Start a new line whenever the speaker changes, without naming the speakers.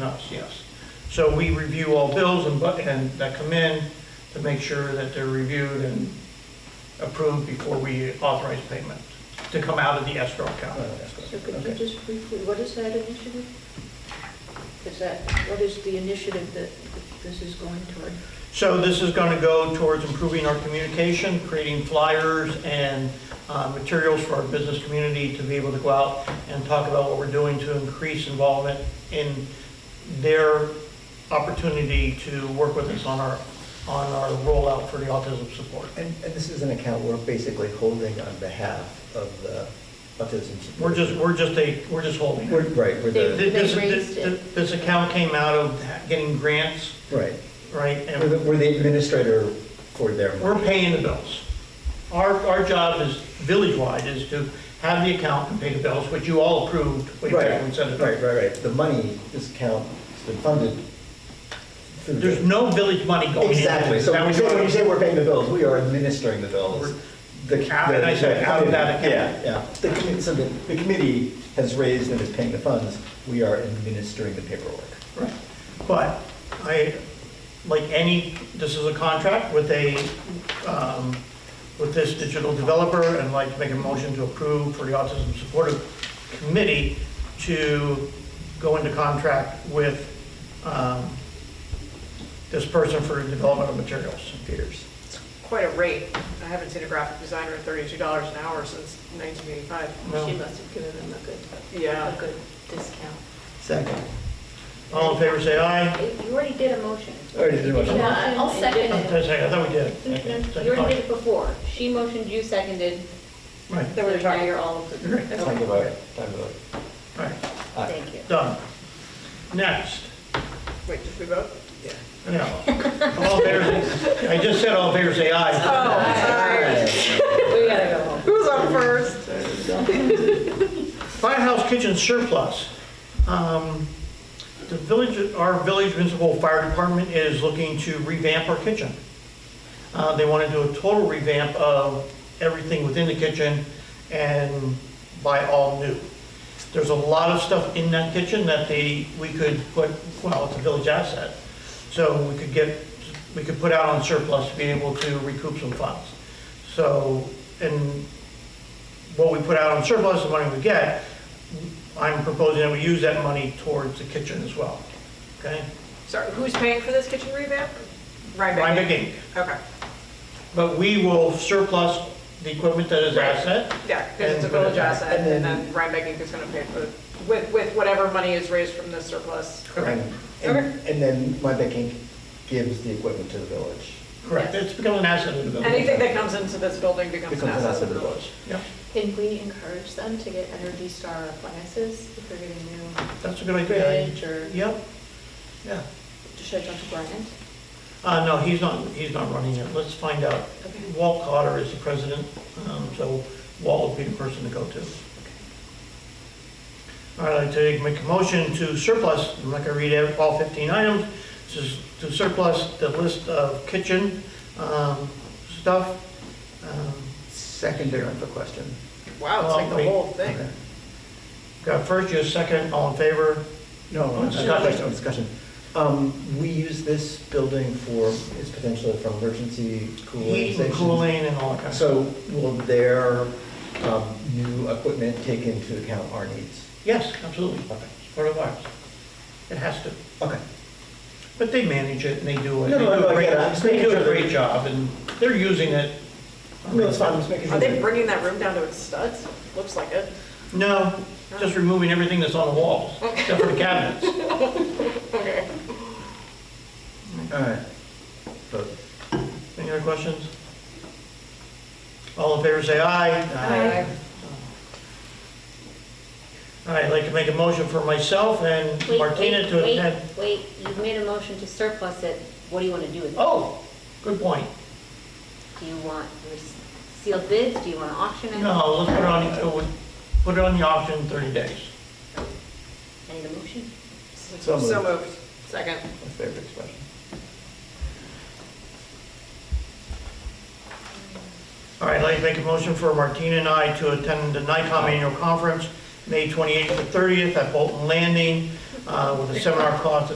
us, yes. So we review all bills and, bu- and that come in to make sure that they're reviewed and approved before we authorize payment to come out of the escrow account.
So could you
Okay.
just briefly, what is that initiative? Is that, what is the initiative that this is going toward?
So this is going to go towards improving our communication, creating flyers and uh, materials for our business community to be able to go out and talk about what we're doing to increase involvement in their opportunity to work with us on our, on our rollout for the autism support.
And, and this is an account we're basically holding on behalf of the autism. support
We're just,
group.
we're just a, we're just holding.
We're,
it.
right, we're
They-
the,
This,
raised
this,
it.
this account came out of getting grants,
right,
right?
we're
And
the, we're the administrator for their.
We're paying the bills. Our, our job is, village-wide, is to have the account and pay the bills, which you all approved way back when we sent
Right,
it
right,
over.
right, right. the money, this account has been funded through. the-
There's no village money going in.
Exactly, so
That
when you
was
say, when you say
your-
we're paying the bills, we are administering the bills.
We're-
The-
Out- and I said
the-
out of that account.
Yeah, yeah, the, commi- so the, the committee has raised and is paying the funds, we are administering the paperwork.
Right. But I, like any, this is a contract with a, um, with this digital developer, and I'd like to make a motion to approve for the Autism Supportive Committee to go into contract with um, this person for development of materials.
Peters.
quite a rate. I haven't seen a graphic designer at thirty-two dollars an hour since nineteen eighty-five.
No.
She must have given them a good,
Yeah.
a good discount.
Second.
All in favor, say aye.
You already did a motion.
Already did one.
No, I'll second
I
it.
thought we did.
You already did it before. She motioned, you seconded,
Right,
so now you're all approved.
Right.
Time to vote, time to vote.
all right,
Aye.
Thank you.
done. Next,
Wait, did we vote?
yeah. All in favor, I just said all in favor, say aye.
We gotta go home.
Who's up first?
Firehouse kitchen surplus. Um, The village, our village municipal fire department is looking to revamp our kitchen. Uh, They want to do a total revamp of everything within the kitchen and buy all new. There's a lot of stuff in that kitchen that they, we could put, well, it's a village asset. So we could get, we could put out on surplus to be able to recoup some funds. So, and what we put out on surplus, the money we get, I'm proposing that we use that money towards the kitchen as well, okay?
Sorry, who's paying for this kitchen revamp?
Rhinebeck Inc.
Okay,
But we will surplus the equipment that is
Right.
asset.
yeah, because
And
it's a
put it
village
back.
asset,
And
and
then-
then Rhinebeck Inc. is gonna pay for, it with, with whatever money is raised from this surplus.
And, and and then Rhinebeck Inc. gives the equipment to the village.
Correct, it's become an asset of the village.
Anything that comes into this building becomes
Becomes
an
an
asset.
asset of the village.
Yeah,
Can we encourage them to get Energy Star appliances if they're getting new?
that's a good idea.
Bridge or-
Yep, yeah.
Should I talk to Brian?
Uh, no, he's not, he's not running it, let's find out.
Okay.
Walt Cotter is the president, um, so Walt would be the person to go to. All right, I'd like to make a motion to surplus, I'm not gonna read ev- all 15 items, just to surplus the list of kitchen, um, stuff. Um,
Secondary rental question.
Wow, it's like the
Well,
whole thing.
Got first, you second, all in favor?
No, no,
Oh, Discussion.
no, question, discussion. Um, we use this building for, is potentially for emergency cooling
Heat and
stations.
cooling and all that kind of.
So will their, um, new equipment take into account our needs?
Yes, absolutely,
Okay.
it's part of ours. It has to.
Okay.
But they manage it and they do it.
No,
They
no,
do a
no, I
great-
get it. I'm just
They
making
do a
sure that-
great job and they're using it.
No, it's fine, I'm just making sure.
Are they
that-
bringing that room down to its studs? Looks like it.
No, just removing everything that's on the walls, except for the cabinets.
Okay.
All right. But
Any other questions? All in favor, say aye.
Aye.
All right, I'd like to make a motion for myself and
Wait,
Martina
wait,
to
wait,
attend.
Wait, you've made a motion to surplus it. What do you want to do with it?
Oh, good point.
Do you want sealed bids? Do you want to auction it?
No, let's put it on, it would- put it on the auction in 30 days.
I need a motion.
So moved.
So moved. Second.
My favorite expression.
All right, I'd like to make a motion for Martina and I to attend the NICOM annual conference, May 28th to 30th at Bolton Landing. uh, with a seminar cost